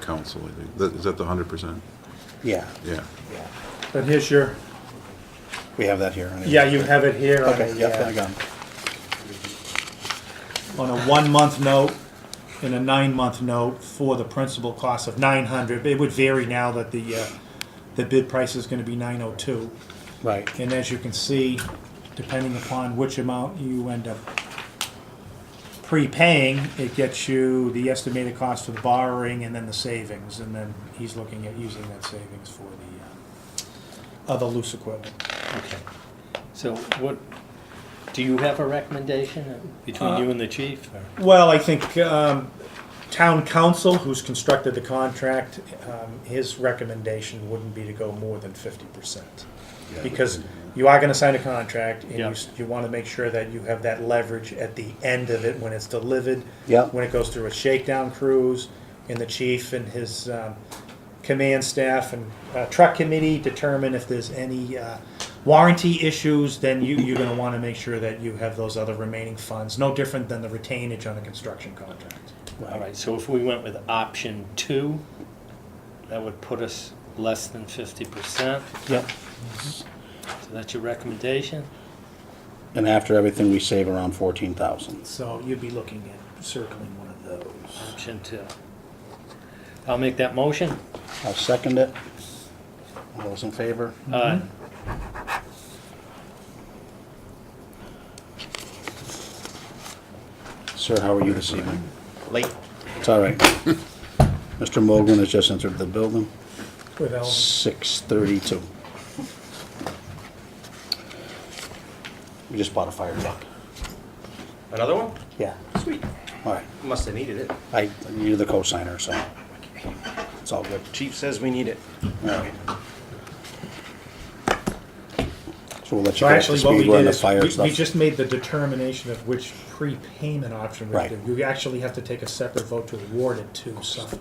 council, I think. That- Is that the 100%? Yeah, Yeah. yeah. But here's your, We have that here. anyway. yeah, you have it here on Okay, yeah, I a, uh, got 'em. on a one-month note and a nine-month note for the principal cost of nine hundred. It would vary now that the, uh, the bid price is gonna be nine oh two. Right, And as you can see, depending upon which amount you end up prepaying, it gets you the estimated cost for the borrowing and then the savings. And then he's looking at using that savings for the uh, other loose equipment. Okay. So what, do you have a recommendation Uh, between you and the chief? or- Well, I think um, town council, who's constructed the contract, um, his recommendation wouldn't be to go more than fifty percent. Because you are gonna sign a contract, and you, Yeah. s- you wanna make sure that you have that leverage at the end of it when it's delivered. Yeah. When it goes through a shakedown cruise, and the chief and his um, command staff and uh, truck committee determine if there's any uh, warranty issues, then you, you're gonna wanna make sure that you have those other remaining funds, no different than the retainage on a construction contract. All right, so if we went with option two, that would put us less than fifty percent. Yep. So that's your recommendation? and after everything, we save around fourteen thousand. So you'd be looking at circling one of those. Option two. I'll make that motion. I'll second it. All those in favor? Aye. Sir, how are you this evening? Mm-hmm. Late. It's all right. Mr. Mogul has just entered the building, With Ellen. six thirty-two. We just bought a fire truck. Another one? Yeah. Sweet. All right, Must have needed it. I, you're the co-signer, so it's all good. Chief says we need it. All right. So we'll let you get So up to actually, what we speed, we're on did the is, fire we- we stuff. just made the determination of which prepayment option we Right. do. You actually have to take a separate vote to award it to Sufton.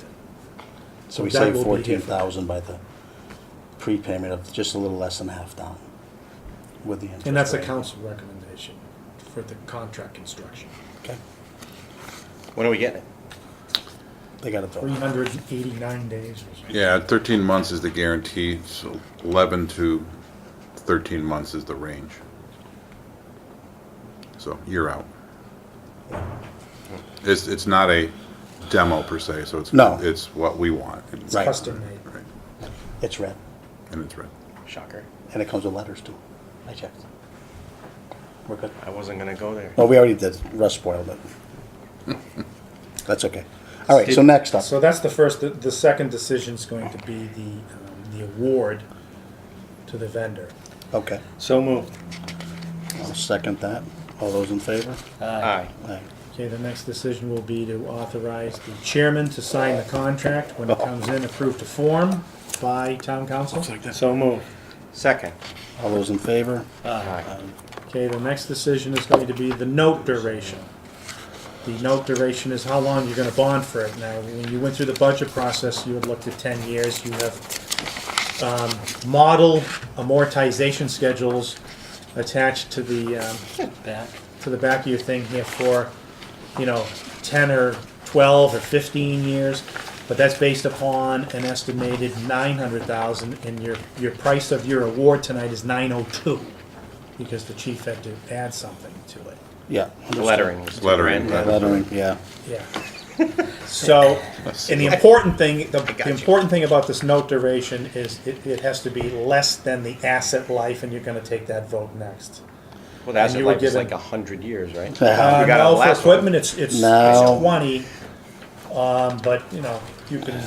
So we that saved will be here fourteen for- thousand by the prepayment of just a little less than half down with the interest. And that's the rate. council recommendation for the contract construction. Okay, When are we getting it? they got it though. Three hundred and eighty-nine days or something. Yeah, 13 months is the guarantee, so 11 to 13 months is the range. So you're out. It's, it's not a demo per se, so it's. No. It's what we want. and- Right. Custom made. Right, It's red, And it's right. Shocker. and it comes with letters too. I checked. We're good. I wasn't gonna go there. Well, we already did, Russ spoiled it. That's okay. All right, so next up, So that's the first, the, the second decision's going to be the, um, the award to the vendor. okay, So moved. I'll second that. All those in favor? Aye. All right. Okay, the next decision will be to authorize the chairman to sign the contract when it comes in approved to form by town council. So moved. Second. All those in favor? Uh, Aye. Okay, the next decision is going to be the note duration. The note duration is how long you're gonna bond for it. Now, when you went through the budget process, you had looked at ten years, you have um, model amortization schedules attached to the, um, Back. to the back of your thing here for, you know, ten or twelve or fifteen years. But that's based upon an estimated nine hundred thousand and your, your price of your award tonight is nine oh two. Because the chief had to add something to it. Yeah. The Lettering. was Lettering. red. Lettering, yeah. Yeah. So, and the important thing, the, the got you. important thing about this note duration is it, it has to be less than the asset life and you're gonna take that vote next. Well, that's And you were like, it's given- like a hundred years, right? Uh, Uh, We got a no, for last one. equipment, it's, it's, No. it's twenty, um, but, you know, you can,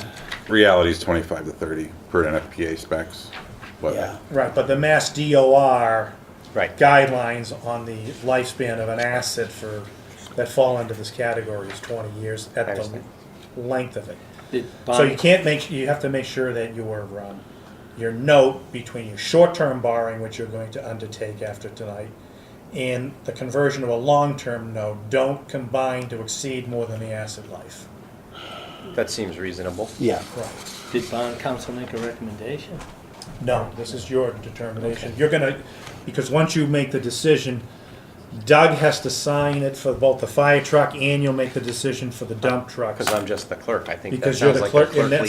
Reality is 25 to 30 per NFPA specs, Yeah. but right, but the mass DOR Right. guidelines on the lifespan of an asset for, that fall into this category is twenty years at I the understand. length of it. Did So you bond- can't make, you have to make sure that your, um, your note between your short-term borrowing, which you're going to undertake after tonight, and the conversion of a long-term note, don't combine to exceed more than the asset life. That seems reasonable. Yeah, Right. Did bond council make a recommendation? No, this is your determination. You're gonna, because once you make the decision, Doug has to sign it for both the fire truck and you'll make the decision for the dump truck. Cause I'm just the clerk. I think that Because you're sounds the like a clerk, and clerkly that's